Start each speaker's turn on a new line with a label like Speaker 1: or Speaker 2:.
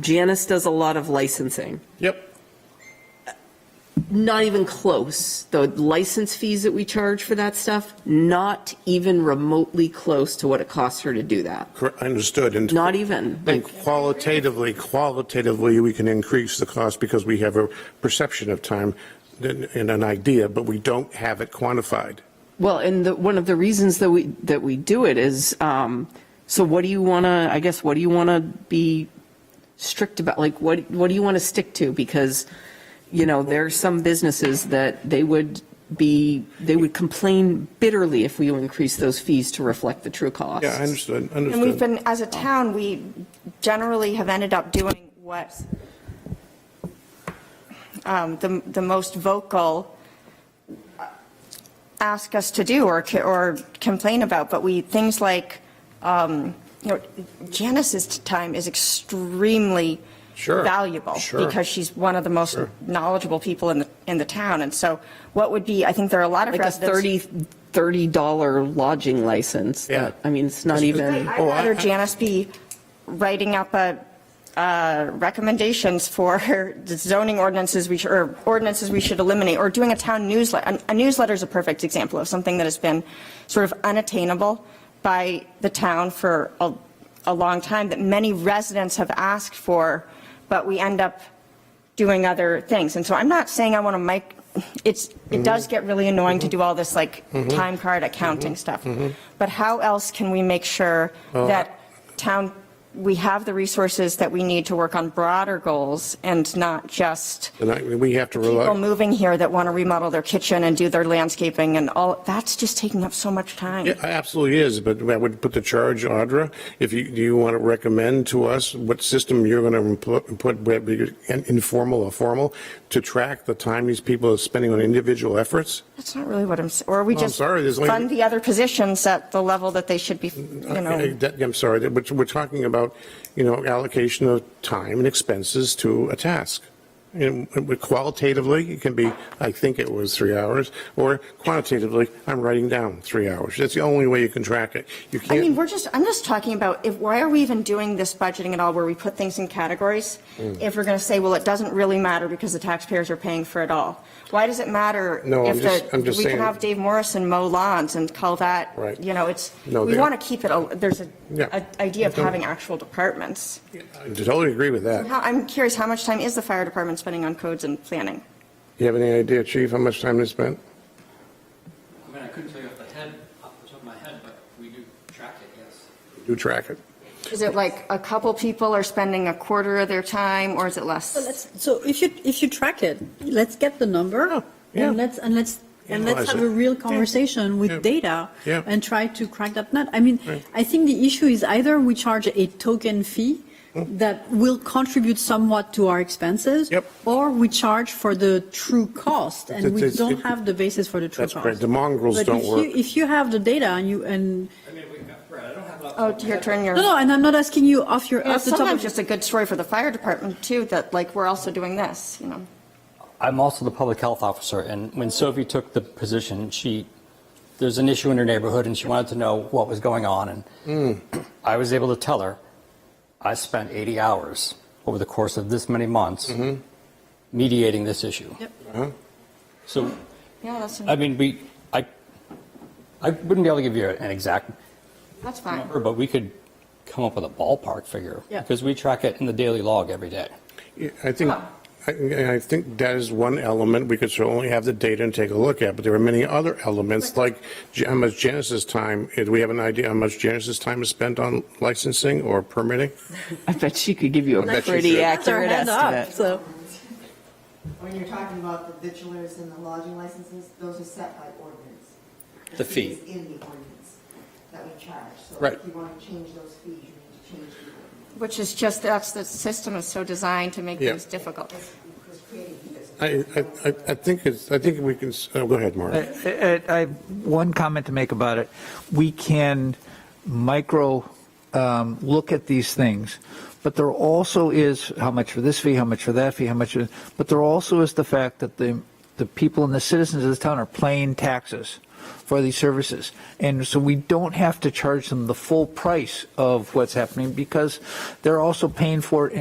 Speaker 1: Janice does a lot of licensing.
Speaker 2: Yep.
Speaker 1: Not even close. The license fees that we charge for that stuff, not even remotely close to what it costs her to do that.
Speaker 2: Correct, Understood. And
Speaker 1: Not even.
Speaker 2: and qualitatively, qualitatively, we can increase the cost because we have a perception of time and and an idea, but we don't have it quantified.
Speaker 1: Well, and the, one of the reasons that we, that we do it is, um, so what do you want to, I guess, what do you want to be strict about? Like, what, what do you want to stick to? Because, you know, there are some businesses that they would be, they would complain bitterly if we increase those fees to reflect the true cost.
Speaker 2: Yeah, I understood,
Speaker 3: And we've
Speaker 2: understood.
Speaker 3: been, as a town, we generally have ended up doing what um, the, the most vocal ask us to do or, ca- or complain about, but we, things like, um, you know, Janice's time is extremely
Speaker 2: Sure,
Speaker 3: valuable.
Speaker 2: sure.
Speaker 3: Because she's one of the most
Speaker 2: Sure.
Speaker 3: knowledgeable people in the, in the town. And so what would be, I think there are a lot of
Speaker 1: Like a
Speaker 3: residents.
Speaker 1: 30, $30 lodging license. that-
Speaker 2: Yeah.
Speaker 1: I mean, it's not even,
Speaker 3: I'd
Speaker 2: Oh, I-
Speaker 3: rather Janice be writing up a, uh, recommendations for the zoning ordinances we should, or ordinances we should eliminate, or doing a town newsletter. A newsletter is a perfect example of something that has been sort of unattainable by the town for a, a long time, that many residents have asked for, but we end up doing other things. And so I'm not saying I want to mic, it's,
Speaker 2: Mm-hmm.
Speaker 3: it does get really annoying to do all this like time card accounting stuff.
Speaker 2: Mm-hmm.
Speaker 3: But how else can we make sure
Speaker 2: Uh-huh.
Speaker 3: that town, we have the resources that we need to work on broader goals and not just
Speaker 2: And I- we have to
Speaker 3: people
Speaker 2: rely,
Speaker 3: moving here that want to remodel their kitchen and do their landscaping and all, that's just taking up so much time.
Speaker 2: it absolutely is, but I would put the charge, Audra, if you, do you want to recommend to us what system you're going to put, whether you're in- informal or formal, to track the time these people are spending on individual efforts?
Speaker 3: That's not really what I'm, s- or we
Speaker 2: Well, I'm
Speaker 3: just
Speaker 2: sorry, there's only-
Speaker 3: fund the other positions at the level that they should be, you
Speaker 2: I-
Speaker 3: know.
Speaker 2: that- I'm sorry, that- but we're talking about, you know, allocation of time and expenses to a task. And with- qualitatively, it can be, I think it was three hours, or quantitatively, I'm writing down three hours. That's the only way you can track it. You
Speaker 3: I mean,
Speaker 2: can't,
Speaker 3: we're just, I'm just talking about, if, why are we even doing this budgeting at all, where we put things in categories?
Speaker 2: Mm.
Speaker 3: If we're going to say, well, it doesn't really matter because the taxpayers are paying for it all. Why does it matter?
Speaker 2: No, I'm
Speaker 3: if
Speaker 2: just-
Speaker 3: the-
Speaker 2: I'm just
Speaker 3: We
Speaker 2: saying-
Speaker 3: can have Dave Morrison mow lawns and call that,
Speaker 2: Right.
Speaker 3: you know, it's,
Speaker 2: No,
Speaker 3: we
Speaker 2: they-
Speaker 3: want to keep it, a- there's a,
Speaker 2: Yeah.
Speaker 3: a idea of
Speaker 2: Don't-
Speaker 3: having actual departments.
Speaker 2: I totally agree with that.
Speaker 3: How, I'm curious, how much time is the fire department spending on codes and planning?
Speaker 2: You have any idea, Chief, how much time they spent?
Speaker 4: I mean, I couldn't tell you off the head, off the top of my head, but we do track it, yes.
Speaker 2: Do track it.
Speaker 3: Is it like a couple people are spending a quarter of their time, or is it less?
Speaker 5: So let's, so if you, if you track it, let's get the number
Speaker 2: yeah.
Speaker 5: and let's, and let's, and let's
Speaker 2: Analyze
Speaker 5: have
Speaker 2: it.
Speaker 5: a real
Speaker 2: Yeah.
Speaker 5: conversation with
Speaker 2: Yeah.
Speaker 5: data
Speaker 2: Yeah.
Speaker 5: and try to crack that nut. I mean,
Speaker 2: Right.
Speaker 5: I think the issue is either we charge a token fee that will contribute somewhat to our expenses.
Speaker 2: Hmm. Yep.
Speaker 5: Or we charge for the true cost and
Speaker 2: It's-
Speaker 5: we
Speaker 2: it's-
Speaker 5: don't
Speaker 2: it-
Speaker 5: have the basis for the true
Speaker 2: That's
Speaker 5: cost.
Speaker 2: correct. The mongrels
Speaker 5: But
Speaker 2: don't
Speaker 5: if you-
Speaker 2: work.
Speaker 5: If you have the data and you, and,
Speaker 4: I mean, we, Brad, I don't have. it off the
Speaker 3: Oh,
Speaker 4: top of my
Speaker 3: your
Speaker 4: head,
Speaker 3: turn, your.
Speaker 5: no, no, and I'm not asking you off your,
Speaker 3: Yeah,
Speaker 5: off the top
Speaker 3: sometimes
Speaker 5: of your.
Speaker 3: just a good story for the fire department too, that like, we're also doing this, you know?
Speaker 4: I'm also the public health officer, and when Sophie took the position, she, there's an issue in her neighborhood, and she wanted to know what was going on, and I was able to tell her, I spent 80 hours over the course of this many months mediating this issue.
Speaker 5: Yep.
Speaker 2: Uh-huh.
Speaker 4: So,
Speaker 3: Yeah, that's,
Speaker 4: I mean, we, I, I wouldn't be able to give you an exact
Speaker 3: that's fine.
Speaker 4: number, but we could come up with a ballpark figure.
Speaker 5: Yeah.
Speaker 4: Because we track it in the daily log every day.
Speaker 2: Yeah, I think, I, I think that is one element we could certainly have the data and take a look at, but there are many other elements, like Ge- how much Genesis time, eh, do we have an idea how much Genesis time is spent on licensing or permitting?
Speaker 1: I bet she could give you a
Speaker 2: bet she
Speaker 1: pretty
Speaker 2: could.
Speaker 5: Their
Speaker 1: accurate
Speaker 5: hand up,
Speaker 1: estimate.
Speaker 5: So.
Speaker 6: When you're talking about the vitulers and the lodging licenses, those are set by ordinance.
Speaker 4: The fee.
Speaker 6: is In the ordinance that we charge.
Speaker 4: Right.
Speaker 6: So if you want to change those fees, you need to change the ordinance.
Speaker 3: Which is just, that's, the system is so designed to make
Speaker 2: Yeah.
Speaker 3: things difficult.
Speaker 6: Because creating this.
Speaker 2: I, I- I, I think it's, I think we can, s- oh, go ahead, Mark.
Speaker 7: I Uh, I- I have one comment to make about it. We can micro um, look at these things, but there also is how much for this fee, how much for that fee, how much, for- but there also is the fact that the, the people and the citizens of this town are paying taxes for these services. And so we don't have to charge them the full price of what's happening because they're also paying for it